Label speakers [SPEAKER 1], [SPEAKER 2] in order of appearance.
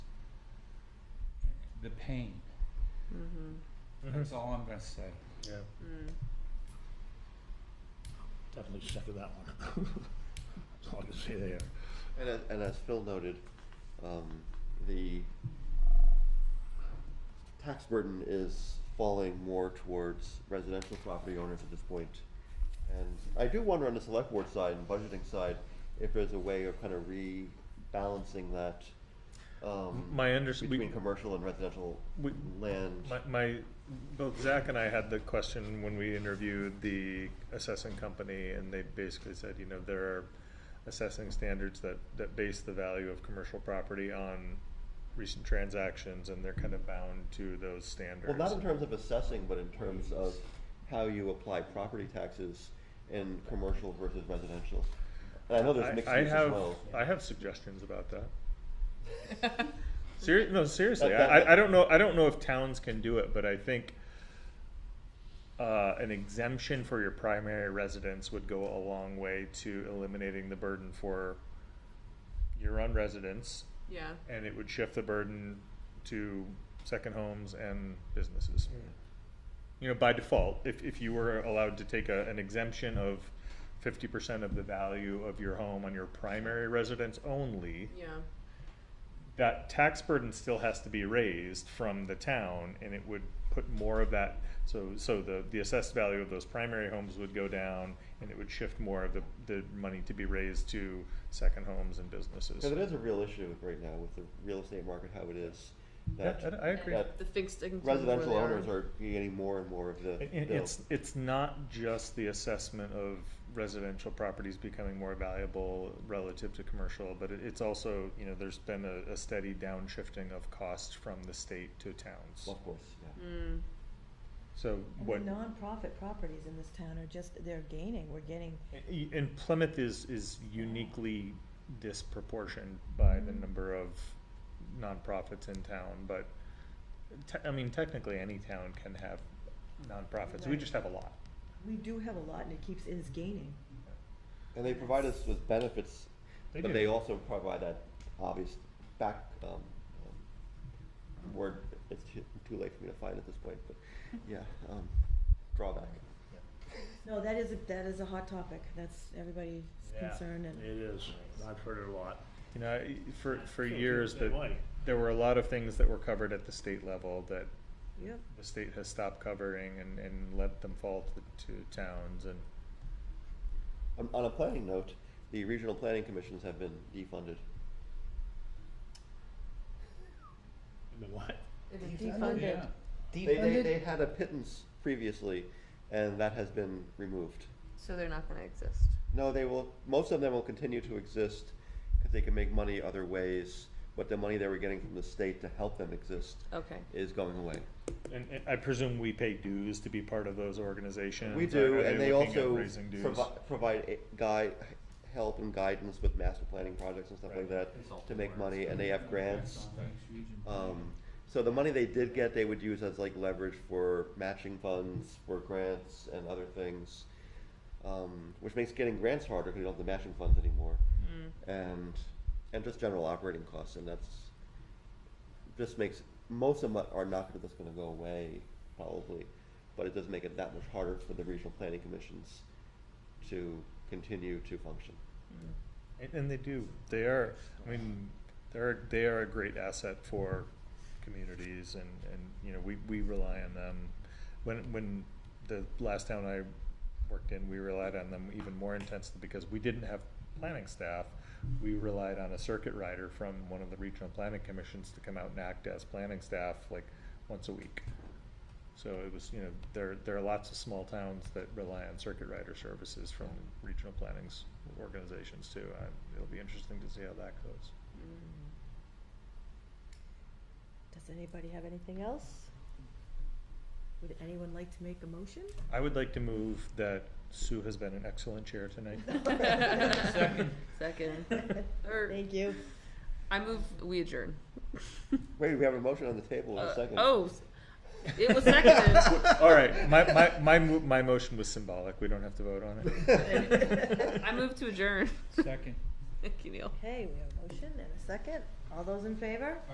[SPEAKER 1] the pain. That's all I'm gonna say.
[SPEAKER 2] Yeah.
[SPEAKER 3] Definitely second that one. That's all I can say there.
[SPEAKER 4] And as, and as Phil noted, um, the tax burden is falling more towards residential property owners at this point. And I do wonder on the select board side and budgeting side, if there's a way of kind of rebalancing that, um,
[SPEAKER 2] My under, we-
[SPEAKER 4] between commercial and residential
[SPEAKER 2] we-
[SPEAKER 4] land.
[SPEAKER 2] my, my, both Zach and I had the question when we interviewed the assessing company, and they basically said, you know, there are assessing standards that, that base the value of commercial property on recent transactions, and they're kind of bound to those standards.
[SPEAKER 4] Well, not in terms of assessing, but in terms of how you apply property taxes in commercial versus residential. And I know there's mixed
[SPEAKER 2] I, I
[SPEAKER 4] use as
[SPEAKER 2] have,
[SPEAKER 4] well.
[SPEAKER 2] I have suggestions about that. Seri- no, seriously,
[SPEAKER 4] That-
[SPEAKER 2] I,
[SPEAKER 4] that-
[SPEAKER 2] I, I don't know, I don't know if towns can do it, but I think uh, an exemption for your primary residence would go a long way to eliminating the burden for your own residents,
[SPEAKER 5] Yeah,
[SPEAKER 2] and it would shift the burden to second homes and businesses. You know, by default, if, if you were allowed to take a, an exemption of fifty percent of the value of your home on your primary residence only,
[SPEAKER 5] yeah,
[SPEAKER 2] that tax burden still has to be raised from the town, and it would put more of that, so, so the, the assessed value of those primary homes would go down, and it would shift more of the, the money to be raised to second homes and businesses.
[SPEAKER 4] Because it is a real issue right now with the real estate market, how it is,
[SPEAKER 2] Yeah, I,
[SPEAKER 4] that
[SPEAKER 2] I agree.
[SPEAKER 4] that
[SPEAKER 5] the fixed income. where
[SPEAKER 4] residential
[SPEAKER 5] they
[SPEAKER 4] owners are getting more and more of the
[SPEAKER 2] I- i-
[SPEAKER 4] bill.
[SPEAKER 2] it's, it's not just the assessment of residential properties becoming more valuable relative to commercial, but it, it's also, you know, there's been a, a steady downshifting of costs from the state to towns.
[SPEAKER 4] Of course, yeah.
[SPEAKER 5] Mm,
[SPEAKER 2] So
[SPEAKER 6] And
[SPEAKER 2] what?
[SPEAKER 6] the nonprofit properties in this town are just, they're gaining, we're getting,
[SPEAKER 2] Y- And Plymouth is, is uniquely disproportioned by the
[SPEAKER 6] Mm-hmm.
[SPEAKER 2] number of nonprofits in town, but te- I mean, technically, any town can have nonprofits, we
[SPEAKER 6] Right.
[SPEAKER 2] just have a lot.
[SPEAKER 6] we do have a lot and it keeps, it is gaining.
[SPEAKER 4] And they provide us with benefits,
[SPEAKER 2] They
[SPEAKER 4] but
[SPEAKER 2] do.
[SPEAKER 4] they also provide that obvious back, um, um, word, it's too too late for me to find at this point, but, yeah, um, drawback.
[SPEAKER 6] No, that is, a that is a hot topic, that's everybody's concern and.
[SPEAKER 3] It is. I've heard it a lot.
[SPEAKER 2] You know, I- for, for
[SPEAKER 3] I feel
[SPEAKER 2] years,
[SPEAKER 3] the
[SPEAKER 2] that
[SPEAKER 3] same way.
[SPEAKER 2] there were a lot of things that were covered at the state level that
[SPEAKER 6] Yep.
[SPEAKER 2] the state has stopped covering and, and let them fall to, to towns and.
[SPEAKER 4] Um, On a planning note, the regional planning commissions have been defunded.
[SPEAKER 3] I mean, what?
[SPEAKER 5] it was
[SPEAKER 6] Defunded.
[SPEAKER 5] defunded.
[SPEAKER 1] Yeah.
[SPEAKER 4] They, they, they had a pittance previously, and that has been removed.
[SPEAKER 5] So they're not gonna exist.
[SPEAKER 4] No, they will, most of them will continue to exist because they can make money other ways, but the money they were getting from the state to help them exist
[SPEAKER 5] Okay.
[SPEAKER 4] is going away.
[SPEAKER 2] And, and I presume we pay dues to be part of those organizations.
[SPEAKER 4] We
[SPEAKER 2] Are-
[SPEAKER 4] do,
[SPEAKER 2] are
[SPEAKER 4] and they
[SPEAKER 2] looking at
[SPEAKER 4] also
[SPEAKER 2] raising dues?
[SPEAKER 4] provi- provide a- guy, help and guidance with master planning projects and stuff like that to make money, and they have grants. Um, so the money they did get, they would use as like leverage for matching funds, for grants and other things. Um, which makes getting grants harder because you don't have the matching funds anymore. And, and just general operating costs, and that's, just makes, most of them are not gonna, that's gonna go away, probably. But it does make it that much harder for the regional planning commissions to continue to function.
[SPEAKER 2] And, and they do, they are, I mean, they're, they are a great asset for communities and, and, you know, we, we rely on them. When, when the last town I worked in, we relied on them even more intensely because we didn't have planning staff. We relied on a circuit rider from one of the regional planning commissions to come out and act as planning staff like once a week. So it was, you know, there, there are lots of small towns that rely on circuit rider services from regional plannings organizations too. Uh, It'll be interesting to see how that goes.
[SPEAKER 6] Does anybody have anything else? Would anyone like to make a motion?
[SPEAKER 2] I would like to move that Sue has been an excellent chair tonight.
[SPEAKER 1] Second.
[SPEAKER 5] Second. Or,
[SPEAKER 6] Thank you.
[SPEAKER 5] I move, we adjourn.
[SPEAKER 4] Wait, we have a motion on the table in
[SPEAKER 5] Uh,
[SPEAKER 4] a second.
[SPEAKER 5] Oh, s- it was seconded.
[SPEAKER 2] All right, my, my, my, mo- my motion was symbolic. We don't have to vote on it.
[SPEAKER 5] I move to adjourn.
[SPEAKER 1] Second.
[SPEAKER 5] Thank you, Neil.
[SPEAKER 6] Okay, we have a motion and a second, all those in favor?